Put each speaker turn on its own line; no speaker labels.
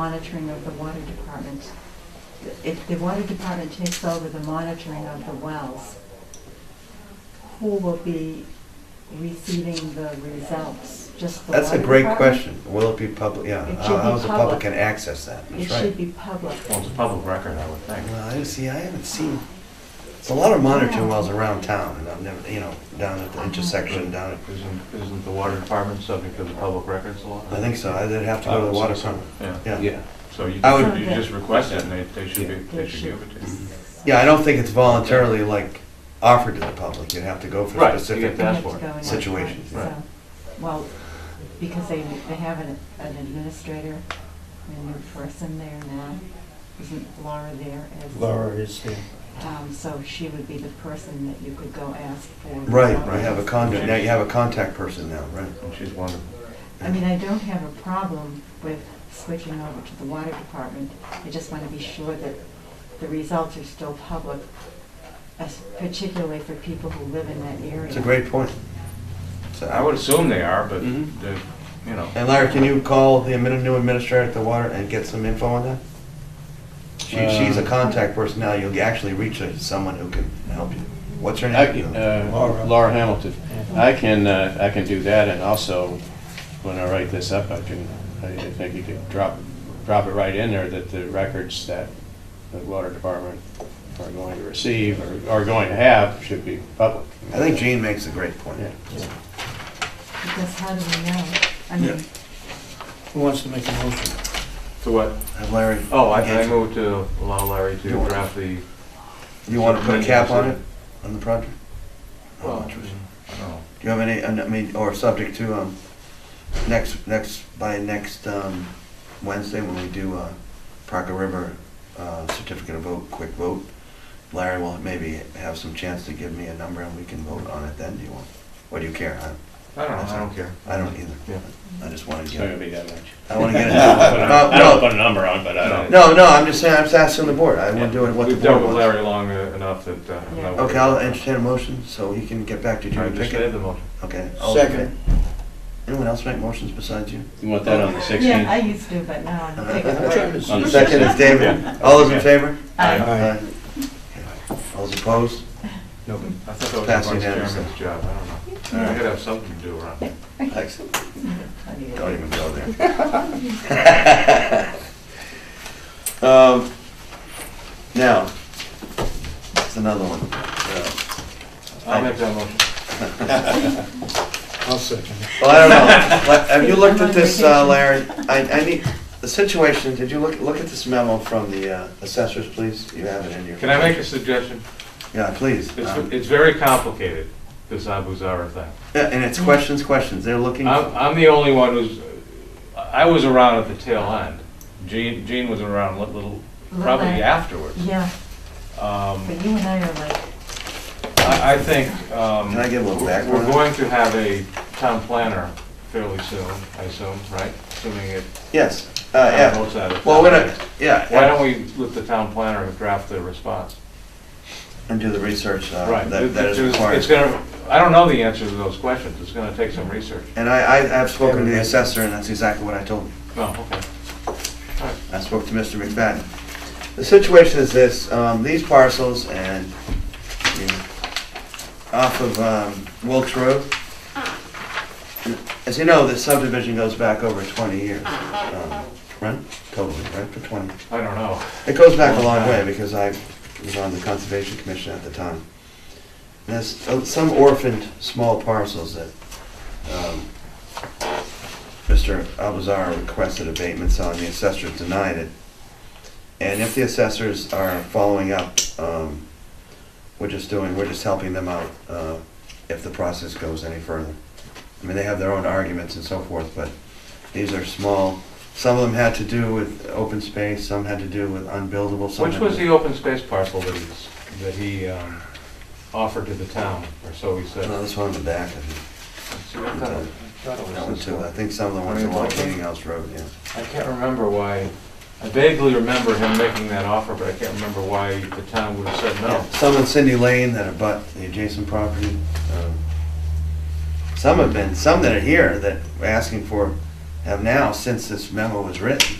monitoring of the water department. If the water department takes over the monitoring of the wells, who will be receiving the results? Just the
That's a
water
great
department?
question. Will it be public, yeah,
It should
how
be
how's the public
public.
can access that? That's
It should
right.
be public.
Well, it's a public record, I would think.
Well, I didn't see, I haven't seen, it's a lot of monitoring
Yeah.
wells around town, and I've never, you know, down at
Uh-huh.
the intersection, down at,
Isn't, isn't the water department subject to the public records law?
I think so, I'd have to go to the water department.
Oh, Yeah,
Yeah,
Yeah,
so you
I
just,
would-
you just request it, and they, they should be,
They
they should give it to you.
yeah, I don't think it's voluntarily like offered to the public, you'd have to go for
Right, you
specific.
get
They have
That's
to
for it.
go and-
Situations,
right,
right.
so- Well, because they, they have an an administrator, a new person there now. Isn't Laura there as?
Laura is here.
Um, so she would be the person that you could go ask for.
Right,
results.
you have a contact, now you have a contact person now, right.
And she's wonderful.
I mean, I don't have a problem with switching over to the water department. I just want to be sure that the results are still public, as- particularly for people who live in that area.
It's a great point. So
I would assume they are, but,
Mhm.
the- you know,
And Larry, can you call the admin- new administrator at the water and get some info on that? She, she's a
Uh,
contact person now, you'll actually reach her- someone who can help you. What's her
I
name?
can, uh,
Laura.
Laura Hamilton. I can, uh, I can do that, and also, when I write this up, I can, I I think you could drop, drop it right in there that the records that the water department are going to receive or are going to have should be public.
I think Jean makes a great point.
Yeah.
Because how do we know? I mean,
Who wants to make a motion?
so what?
Have Larry,
Oh, I, I
Andrew.
moved to allow Larry to
You want-
draft the,
you want to put a cap on it, on the project? Oh, How
Well,
much was it?
uh, I don't know.
Do you have any, I mean, or subject to, um, next, next, by next, um, Wednesday when we do, uh, Parker River, uh, certificate of vote, quick vote, Larry will maybe have some chance to give me a number and we can vote on it then, do you want? Or do you care? I,
I don't know, I don't care.
I don't either.
Yeah.
I just wanna
It's not
get,
gonna be that much.
I wanna get it.
I don't
No,
put a number on, but I
No.
don't.
no, no, I'm just saying, I'm just asking the board, I wanna do it what the
We've dealt
board
with
wants.
Larry long uh, enough that, uh. I'm not worried.
Okay, I'll entertain a motion so he can get back to
All
Jim
right,
and
just
pick
made
it.
the motion.
Okay. all in
Second.
favor? Anyone else make motions besides you?
You want that on the
yeah, I
16th?
used to, but now I'm taking
I'm trying
it
to
away.
On the
Second is
Yeah.
David. All those in favor?
I-
Aye.
Aye. All those opposed?
Nobody.
I thought that was
Passing
the vice
unanimously.
chairman's job, I don't know.
All
I
right.
gotta have something to do around here.
Excellent.
I mean,
Don't even go there. Um, Now, it's another one.
I'll make that motion.
I'll second it.
Well, I don't know. Like, Have you looked at this, uh, Larry? I, I need, the situation, did you look, look at this memo from the uh, assessors, please? You have it in your.
Can I make a suggestion?
Yeah, please.
It's,
Um,
it's very complicated, this Abu Zara thing.
Yeah, and it's questions, questions. They're looking.
I'm, I'm the only one who's, I was around at the tail end. Gene, Gene was around a little, probably
Little bit.
afterwards.
Yeah,
Um,
but you and I are like,
I, I think, um,
Can I get a little
we're
background?
going to have a town planner fairly soon, I assume, right? Assuming it,
Yes, uh,
on
yeah.
both sides of
Well,
town.
we're gonna, yeah.
Why don't we let the town planner draft the response?
And do the research uh,
Right.
that that is
It's- It's
required.
gonna, I don't know the answer to those questions, it's gonna take some research.
And I, I- I've spoken to the assessor, and that's exactly what I told him.
Oh, okay.
I spoke to Mr. McFadden. The situation is this, um, these parcels and, you know, off of um, Wilkes Road, as you know, the subdivision goes back over 20 years, um, right? Totally, right, for 20.
I don't know.
It goes back a long way because I was on the Conservation Commission at the time. And There's uh, some orphaned small parcels that um, Mr. Albazar requested abatements on, the assessors denied it. And if the assessors are following up, um, we're just doing, we're just helping them out uh, if the process goes any further. I mean, they have their own arguments and so forth, but these are small, some of them had to do with open space, some had to do with unbuildable, some
Which
had
was
to-
the open space parcel that he's, that he um, offered to the town, or so he said?
No, this one in the back, I think.
See, I thought it- I thought it was
That one
this
too. I
one.
think some of the ones along Meeting House Road, yeah.
I can't remember why, I vaguely remember him making that offer, but I can't remember why the town would have said no.
Some in Cindy Lane that abut the adjacent property. um, Some have been, some that are here that we're asking for have now, since this memo was written,